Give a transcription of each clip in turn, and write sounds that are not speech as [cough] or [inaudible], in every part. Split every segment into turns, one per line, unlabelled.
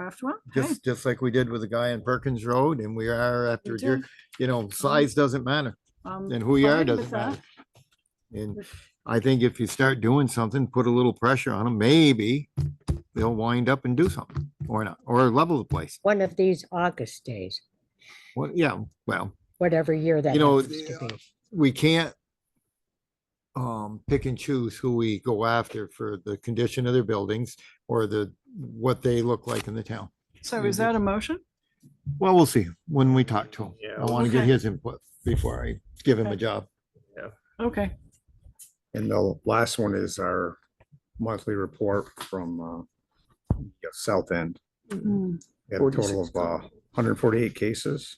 draft one. Okay.
Just, just like we did with the guy on Perkins Road and we are after,
Me
deer-
too.
you know, size doesn't matter
I'm
and who you are
um, fine with
doesn't matter.
that.
And I think if you start doing something, put a little pressure on them, maybe they'll wind up and do something or not, or level the place.
one of these August days,
Well, yeah, well,
whatever year that
You know,
happens to be.
we can't um, pick and choose who we go after for the condition of their buildings or the, what they look like in the town.
So is that a motion?
Well, we'll see when we talk to him. I
Yeah.
want to get
Okay.
his input before I give him a
Okay.
job.
Okay,
And the last one is our monthly report from uh, yeah, South End.
Mm,
We had a total of uh, 148 cases.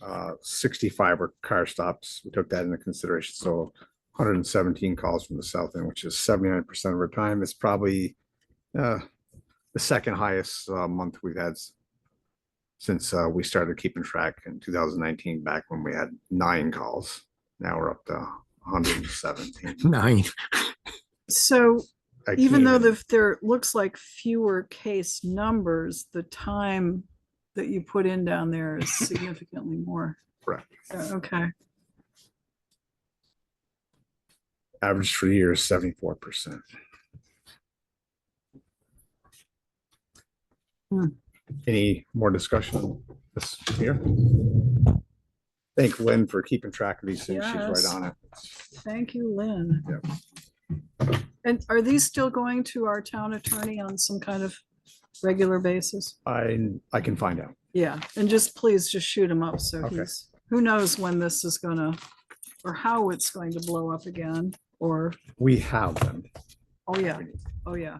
Uh, 65 were car stops. We took that into consideration. So 117 calls from the South End, which is 79% of our time. It's probably uh, the second highest uh, month we've had s- since uh, we started keeping track in 2019, back when we had nine calls. Now we're up to 117.
Nine.
so
I
even though
can't
the, there looks like fewer case numbers, the time that you put in down there
[laughs]
is significantly more.
Correct.
So, Okay,
average for the year is seventy-four percent.
Hmm.
Any more discussion on this here? Thank Lynn for keeping track of these things. She's right
Yes.
on it.
thank you, Lynn. And are these still going to our town attorney on some kind of regular basis?
I, I can find out.
Yeah, and just please just shoot him up so
Okay.
he's, who knows when this is gonna, or how it's going to blow up again, or,
We have them.
oh yeah, oh yeah.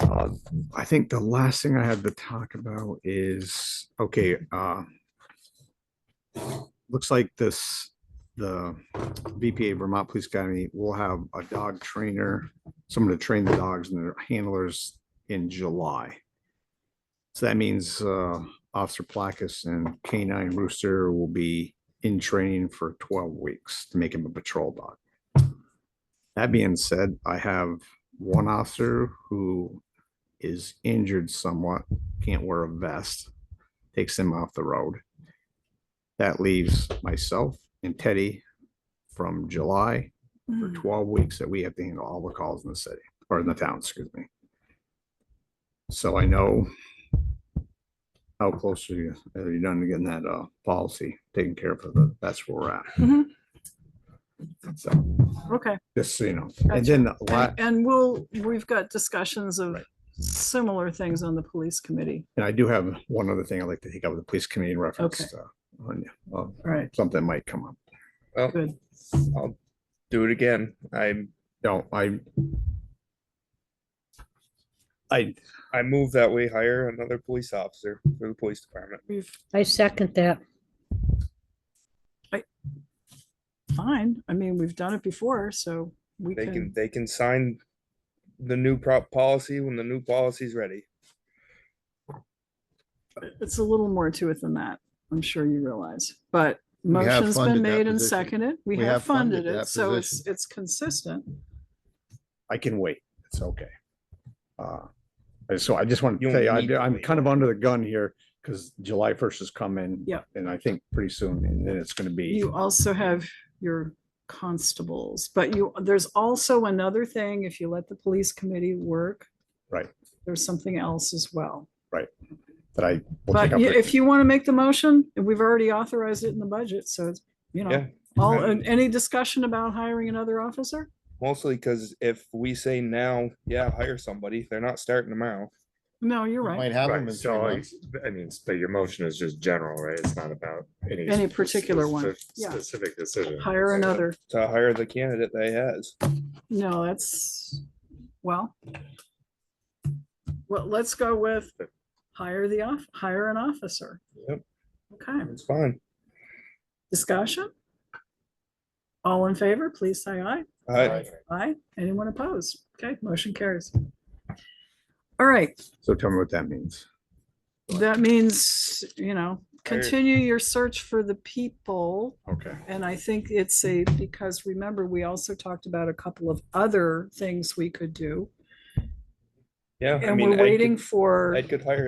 Uh, I think the last thing I have to talk about is, okay, uh. Looks like this, the VPA Vermont Police Academy will have a dog trainer, someone to train the dogs and their handlers in July. So that means, uh, Officer Placus and Canine Rooster will be in training for twelve weeks to make him a patrol dog. That being said, I have one officer who is injured somewhat, can't wear a vest, takes him off the road. That leaves myself and Teddy from July for
Hmm.
Mm.
twelve weeks that we have to handle all the calls in the city, or in the town, excuse me. So I know how close are you, are you done to getting that, uh, policy taken care of, for the- that's where we're at,
Mhm,
so,
Okay,
just so you know.
Gotcha.
And then the la-
and and we'll, we've got discussions of
Right.
similar things on the police committee,
And I do have one other thing I'd like to take up with the police committee in reference
Okay.
to on, uh,
right?
something might come up.
Good,
do it again. I
No, I. I,
I move that we hire another police officer for the police department.
we've,
I second that.
fine, I mean, we've done it before, so we
They can
can,
they can sign the new prop policy when the new policy's ready.
it's a little more to it than that, I'm sure you realize, but
We have
motion's been
funded that
made and
position.
seconded, we
We
have
have funded
funded it,
that
so it's,
position.
it's consistent.
I can wait. It's okay. Uh, and so I just want to
You'll
tell you,
need to
I- I'm
wait.
kind of under the gun here because July first has come in.
Yep.
And I think pretty soon, and then it's gonna be,
You also have your constables, but you, there's also another thing, if you let the police committee work.
Right.
There's something else as well.
that I. will take
But
up
you-
with-
if you want to make the motion, and we've already authorized it in the budget, so it's, you know,
Yeah.
all, and any discussion about hiring another officer?
Mostly because if we say now, yeah, hire somebody, they're not starting tomorrow.
No, you're right.
Might have them
Right,
in three
so I,
months.
I mean, but your motion is just general, right? It's not about any.
Any particular one,
spef-
yeah.
Specific decision.
Hire another.
To hire the candidate they has.
No, that's, well. Well, let's go with hire the off, hire an officer.
Yep.
Okay.
It's fine.
Discussion? All in favor, please say aye.
I,
Aye. Anyone opposed? Okay, motion carries. All right,
So tell me what that means.
that means, you know,
Hire-
continue your search for the people.
Okay.
And I think it's a, because remember, we also talked about a couple of other things we could do. Yeah. I
And
mean, Ed
we're
could-
waiting for.
Ed could hire